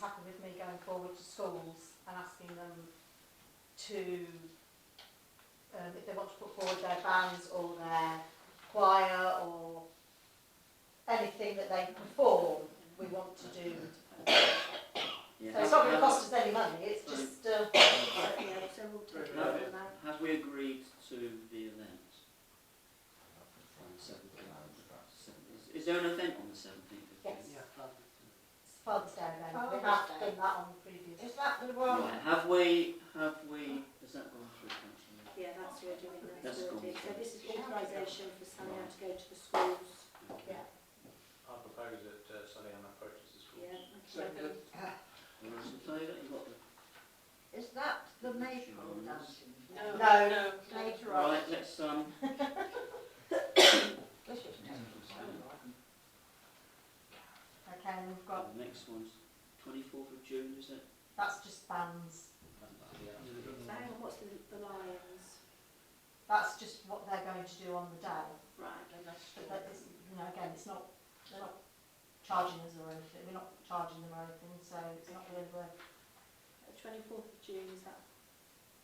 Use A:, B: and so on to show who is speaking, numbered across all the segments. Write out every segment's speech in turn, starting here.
A: happened with me going forward to schools and asking them to, um, if they want to put forward their bands or their choir or anything that they perform, we want to do. So it's not going to cost us any money, it's just, uh,
B: Have we agreed to the event? On the 7th Is- Is there an event on the seventeenth?
A: Yes. Father's Day event, we have done that on the previous.
C: Is that the one?
A: Um,
B: Right, have we, have we, has that gone through council?
D: Yeah, that's what we're doing,
B: That's
D: that's what we're
B: cool.
D: doing. So this is authorisation for Sanya to go to the schools.
A: Yeah.
E: I propose that uh, Sally-Anne approaches the school.
D: Yeah.
B: All those in favour, you've got the...
C: Is that the maple dancing?
A: No,
C: Later on.
B: Right, let's, um,
C: This is taking so long.
A: Okay, and we've got,
B: the next one's twenty-fourth of June, is it?
A: that's just bands,
B: Mm-hmm.
D: Hang on, what's the, the Lions?
A: that's just what they're going to do on the day.
D: Right,
A: But that is, you know, again, it's not, they're not charging us or anything, we're not charging them or anything, so it's not really, worth-
D: twenty-fourth of June, is that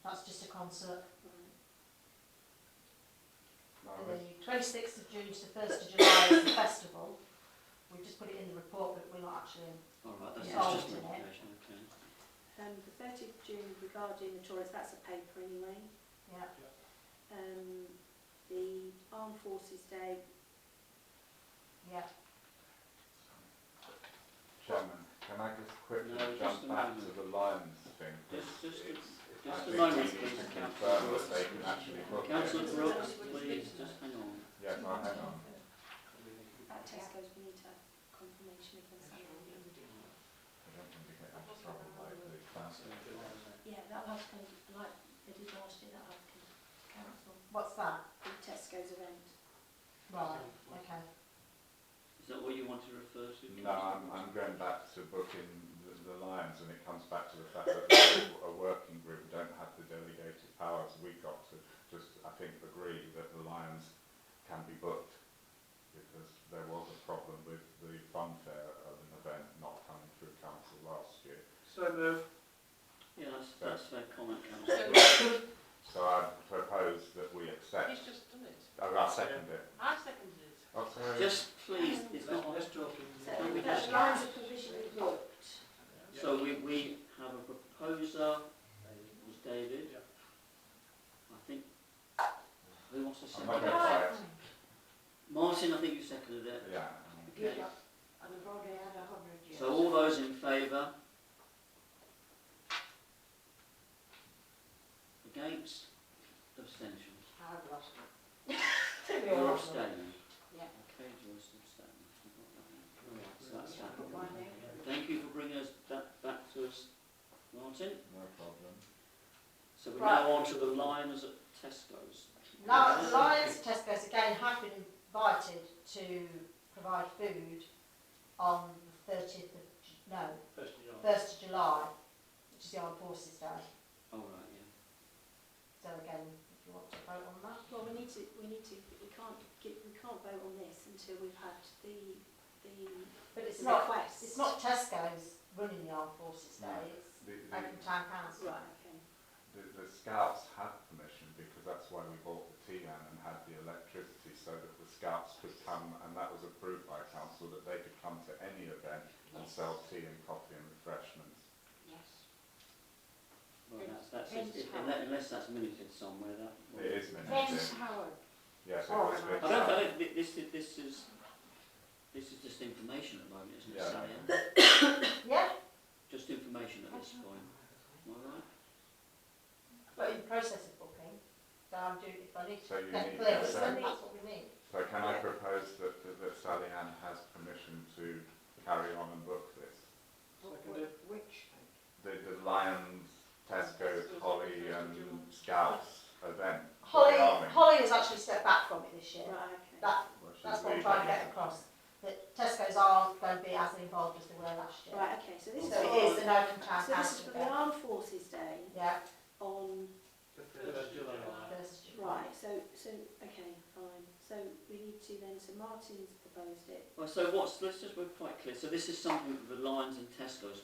A: that's just a concert.
D: right?
A: The twenty-sixth of June to the first of July is the festival. We've just put it in the report, but we're not actually,
B: All right, that's
A: Yeah.
B: that's just an
A: Yeah.
B: application, okay.
D: Um, the thirtieth of June regarding the tourists, that's a paper anyway.
A: yeah,
D: Um, the Armed Forces Day,
A: yeah,
F: Chairman, can I just quickly
B: No, just a
F: jump back
B: moment.
F: to the Lions thing?
B: Just- just-
F: It's- it's-
B: just
F: I
B: a
F: think
B: moment,
F: we need
B: please,
F: to
B: Councillor
F: confirm
B: Brooks.
F: that they can actually book
B: Councillor
F: it.
B: Brooks, please, just hang on.
F: Yeah, no, hang on.
D: that Tesco's, we need to have confirmation against that.
F: I don't think we get into trouble by the council.
D: Yeah, that was kind of like, they did last year, that was kind of council,
A: what's that?
D: the Tesco's event.
A: Right, okay,
B: Is that what you want to refer to?
F: No, I'm,
B: Councillor Brooks?
F: I'm going back to booking the, the Lions and it comes back to the fact that a- a working group don't have the delegated powers. We got to just, I think, agree that the Lions can be booked because there was a problem with the funfair of an event not coming through council last year.
E: So move.
B: Yeah, that's, that's fair comment, councillor Brooks.
F: So I propose that we accept.
G: He's just done it.
F: Oh, I second it.
G: I seconded it.
F: Oh, sorry.
B: Just please, it's not on.
E: Let's talk in.
D: So
B: Can we
D: that's
B: just-
D: lines of provision booked.
B: So we, we have a proposer, was David.
E: Yeah.
B: I think, who wants to
F: I'm
B: second
F: not going to
B: it?
F: buy it.
B: Martin, I think you seconded it.
F: Yeah.
B: Okay.
C: And I've already had a hundred years.
B: So all those in favour? Against? Abstentions?
C: I've lost it.
B: You're abstaining?
C: Yeah.
B: Okay, Joyce, abstaining. Right, so that's that. Thank you for bringing us that back to us, Martin.
F: No problem.
B: So we're
A: Right.
B: now on to the Lions at Tesco's.
A: Now, Lions Tesco's again have been invited to provide food on the thirtieth of, Ju- no,
E: First of July.
A: first of July, which is the Armed Forces Day.
B: All right, yeah.
A: So again, if you want to vote on that.
D: Well, we need to, we need to, we can't get, we can't vote on this until we've had the, the
A: But it's not,
D: request.
A: it's not Tesco's running the armed forces day, it's
F: The, the,
A: Oakham Town Council.
D: Right, okay.
F: the, the scouts had permission because that's why we bought the TLAN and had the electricity so that the scouts could come and that was approved by council that they could come to any event and sell tea and coffee and refreshments.
B: Well, that's, that's, if- unless, unless that's minuted somewhere, that.
F: It is
C: Vince
F: minuted.
C: Howard.
F: Yes, it
C: Oh,
F: was.
B: I
C: and
B: don't, I
F: Vince.
B: don't, thi- this is, this is, this is just information at the moment, isn't it,
F: Yeah.
B: Sally? Ann?
A: Yeah,
B: Just information at this point, am I right?
A: but in the process of booking, so I'm doing, if I need to
F: So you
A: get
F: need
A: clearance,
F: consent.
A: then that's what we need.
F: So can I propose that, that, that Sally Ann has permission to carry on and book this?
E: Seconded.
C: Which?
F: The, the Lions, Tesco, Holly and Scouts event.
A: Holly,
F: The army.
A: Holly has actually stepped back from it this year.
D: Right, okay.
A: That,
F: Well, she's
A: that's what I'm trying to get
F: leaving.
A: across, that Tesco's aren't going to be as involved as they were last year.
D: Right, okay, so this is,
A: So it is
D: so
A: an Oakham Town
D: this is
A: Council
D: for the
A: event.
D: Armed Forces Day
A: Yeah,
D: on,
E: The first of July.
A: first of July.
D: right, so, so, okay, fine. So we need to then, so Martin's proposed it.
B: Well, so what's, let's just, we're quite clear, so this is something that the Lions and Tesco's